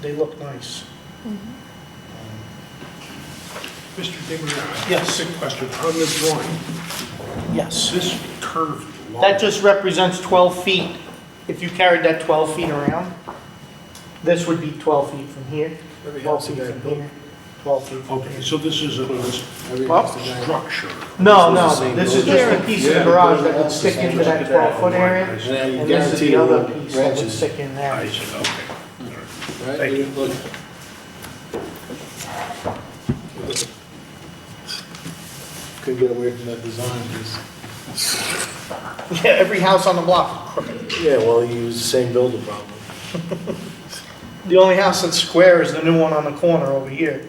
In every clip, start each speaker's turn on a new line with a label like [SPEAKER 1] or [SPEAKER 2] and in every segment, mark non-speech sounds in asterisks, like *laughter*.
[SPEAKER 1] they look nice.
[SPEAKER 2] Mr. Digger?
[SPEAKER 1] Yes.
[SPEAKER 2] Quick question. On the drawing, is
[SPEAKER 1] Yes.
[SPEAKER 2] this curved line?
[SPEAKER 1] That just represents 12 feet. If you carried that 12 feet around, this would be 12 feet from here, 12 feet from here, 12 feet from
[SPEAKER 2] Okay,
[SPEAKER 1] here.
[SPEAKER 2] so this is a
[SPEAKER 3] Oh.
[SPEAKER 1] Well,
[SPEAKER 2] structure.
[SPEAKER 1] No, no, this is just a piece of the garage that would stick into that 12-foot
[SPEAKER 2] And
[SPEAKER 1] area,
[SPEAKER 3] then you
[SPEAKER 1] and this is the
[SPEAKER 3] guarantee
[SPEAKER 1] other
[SPEAKER 3] the
[SPEAKER 1] piece that would
[SPEAKER 3] branches.
[SPEAKER 1] stick in
[SPEAKER 2] I
[SPEAKER 1] there.
[SPEAKER 2] said, okay.
[SPEAKER 3] Right,
[SPEAKER 2] Thank
[SPEAKER 3] you
[SPEAKER 2] you.
[SPEAKER 3] look, could get away from that design, just.
[SPEAKER 1] Yeah, every house on the block.
[SPEAKER 3] Yeah, well, you use the same builder problem.
[SPEAKER 1] The only house that's square is the new one on the corner over here.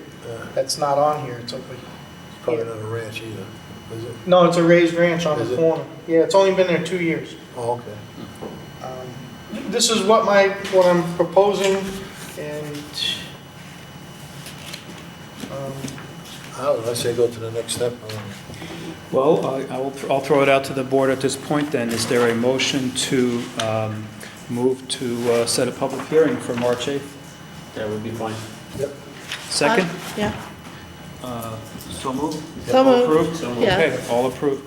[SPEAKER 1] That's not on here, it's over here.
[SPEAKER 3] Uh, Probably not a ranch either, is it?
[SPEAKER 1] No, it's a raised ranch on
[SPEAKER 3] Is
[SPEAKER 1] the
[SPEAKER 3] it?
[SPEAKER 1] corner. Yeah, it's only been there two years.
[SPEAKER 3] Oh, okay.
[SPEAKER 1] Um, This is what my, what I'm proposing, and, um,
[SPEAKER 3] I don't know, I say go to the next step. I don't know.
[SPEAKER 4] Well, I- I will, th- I'll throw it out to the board at this point then. Is there a motion to um, move to uh, set a public hearing for March 8th?
[SPEAKER 5] That would be fine.
[SPEAKER 4] Second?
[SPEAKER 6] Yeah,
[SPEAKER 4] Uh, So moved?
[SPEAKER 6] So
[SPEAKER 4] All
[SPEAKER 6] moved.
[SPEAKER 4] approved?
[SPEAKER 5] So moved.
[SPEAKER 6] Yeah.
[SPEAKER 4] Okay, all approved.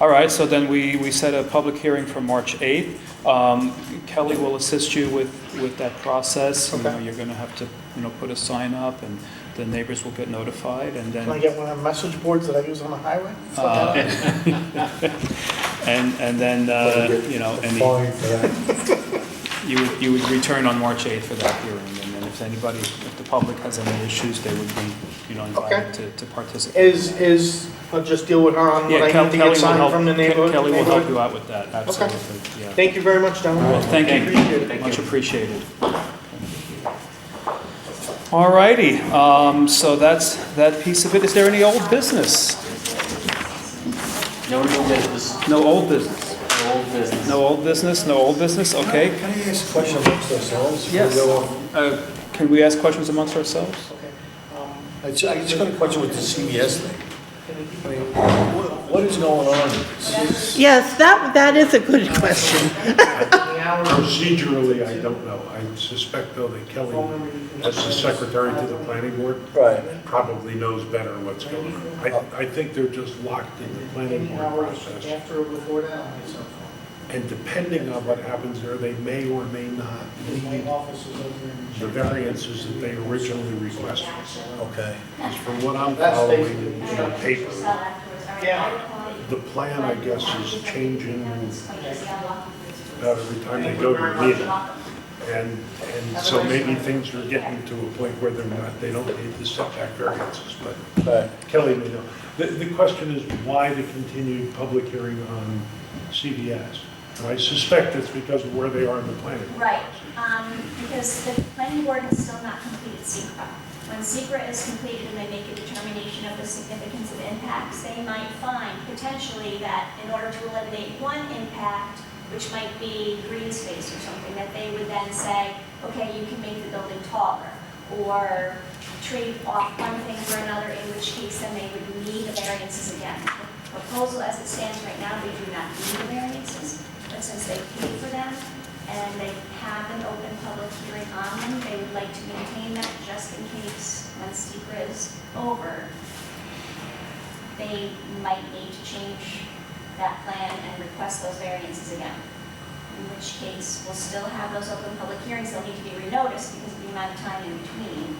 [SPEAKER 4] All right, so then we, we set a public hearing for March 8th. Um, Kelly will assist you with, with that process. You know,
[SPEAKER 1] Okay.
[SPEAKER 4] You're going to have to, you know, put a sign up, and the neighbors will get notified, and then...
[SPEAKER 1] can I get one of the message boards that I use on the highway?
[SPEAKER 4] Uh, *laughs* And, and then, uh, you know, any,
[SPEAKER 3] Fine for that.
[SPEAKER 4] you would, you would return on March 8th for that hearing, and then if anybody, if the public has any issues, they would be, you know, invited to, to participate.
[SPEAKER 1] Is, is, I'll just deal with her on what
[SPEAKER 4] Yeah,
[SPEAKER 1] I
[SPEAKER 4] Kelly
[SPEAKER 1] need to
[SPEAKER 4] Kelly
[SPEAKER 1] get
[SPEAKER 4] will
[SPEAKER 1] signed
[SPEAKER 4] help-
[SPEAKER 1] from the
[SPEAKER 4] Ke-
[SPEAKER 1] neighborhood.
[SPEAKER 4] Kelly will help
[SPEAKER 1] neighborhood.
[SPEAKER 4] you out with that, absolutely, yeah.
[SPEAKER 1] Thank you very much,
[SPEAKER 4] Well,
[SPEAKER 1] gentlemen.
[SPEAKER 4] thank
[SPEAKER 1] Appreciate
[SPEAKER 4] you, much appreciated. All righty, um, so that's, that piece of it. Is there any old business?
[SPEAKER 5] No new business,
[SPEAKER 4] No old business?
[SPEAKER 5] no old business.
[SPEAKER 4] No old business, no old business, okay.
[SPEAKER 3] Can I ask a question amongst ourselves? before we
[SPEAKER 4] Yes.
[SPEAKER 3] go on?
[SPEAKER 4] Uh, Can we ask questions amongst ourselves?
[SPEAKER 3] I ju- I just got a question with the CBS thing. I mean, what- What is going on?
[SPEAKER 6] yes, that, that is a good question.
[SPEAKER 2] Procedurally, I don't know. I suspect though that Kelly, as the secretary to the planning board,
[SPEAKER 3] Right.
[SPEAKER 2] probably knows better what's going on. I, I think they're just locked in the planning board process.
[SPEAKER 1] After or before that, on my cell phone.
[SPEAKER 2] And depending on what happens there, they may or may not
[SPEAKER 1] My
[SPEAKER 2] need
[SPEAKER 1] office is over in-
[SPEAKER 2] the variances that they originally requested.
[SPEAKER 3] Okay.
[SPEAKER 2] From what I'm
[SPEAKER 1] That's
[SPEAKER 2] following
[SPEAKER 1] basically-
[SPEAKER 2] in the paper,
[SPEAKER 1] Yeah,
[SPEAKER 2] the plan, I guess, is changing about every time they go to a meeting. And, and so maybe things are getting to a point where they're not, they don't need the setback variances, but
[SPEAKER 3] Right.
[SPEAKER 2] Kelly may know. The, the question is why the continued public hearing on CBS? And I suspect it's because of where they are in the planning.
[SPEAKER 7] Right, um, because the planning board has still not completed SECR. When SECR is completed and they make a determination of the significance of impacts, they might find potentially that in order to eliminate one impact, which might be green space or something, that they would then say, okay, you can make the building taller, or trade off one thing for another, in which case then they would need the variances again. The Proposal as it stands right now, they do not need the variances, but since they paid for them, and they have an open public hearing on them. They would like to maintain that just in case, when secret is over, they might need to change that plan and request those variances again. In which case, we'll still have those open public hearings, they'll need to be renoticed because of the amount of time in between,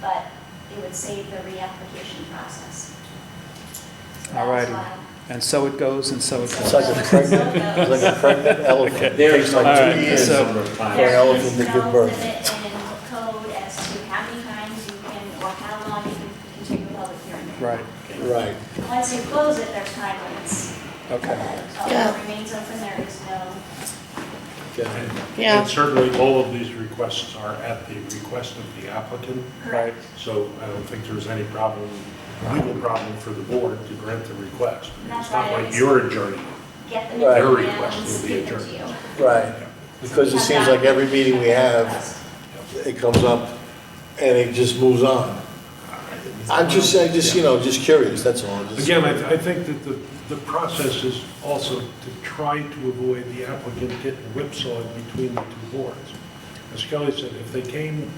[SPEAKER 7] but it would save the reapplication process. So
[SPEAKER 4] All
[SPEAKER 7] that's
[SPEAKER 4] righty.
[SPEAKER 7] why-
[SPEAKER 4] And so it goes, and so it
[SPEAKER 3] It's
[SPEAKER 4] goes.
[SPEAKER 3] like a pregnant, it's like a pregnant elephant.
[SPEAKER 5] There
[SPEAKER 3] It
[SPEAKER 5] is
[SPEAKER 3] takes
[SPEAKER 5] no
[SPEAKER 3] like
[SPEAKER 4] All
[SPEAKER 3] two
[SPEAKER 4] right,
[SPEAKER 3] years.
[SPEAKER 4] so-
[SPEAKER 5] number of times.
[SPEAKER 3] an
[SPEAKER 7] There is
[SPEAKER 3] elephant to give
[SPEAKER 7] no
[SPEAKER 3] birth.
[SPEAKER 7] limit in code as to how many times you can, or how long you can continue a public hearing.
[SPEAKER 4] Right,
[SPEAKER 3] Right.
[SPEAKER 7] Once you close it, there's time limits.
[SPEAKER 4] okay.
[SPEAKER 7] Although it remains open, there is no.
[SPEAKER 3] Okay.
[SPEAKER 6] Yeah.
[SPEAKER 2] And certainly, all of these requests are at the request of the applicant,
[SPEAKER 4] Right,
[SPEAKER 2] so I don't think there's any problem, legal problem for the board to grant the request. It's not like you're adjourning.
[SPEAKER 7] Get them.
[SPEAKER 3] Their
[SPEAKER 2] request
[SPEAKER 7] and
[SPEAKER 2] will be
[SPEAKER 7] give them to
[SPEAKER 2] adjourned.
[SPEAKER 7] you.
[SPEAKER 3] Right, because it seems like every meeting we have, it comes up and it just moves on. I'm just, I just, you know, just curious, that's all. Just-
[SPEAKER 2] Again, I, I think that the, the process is also to try to avoid the applicant getting whipsawed between the two boards. As Kelly said, if they came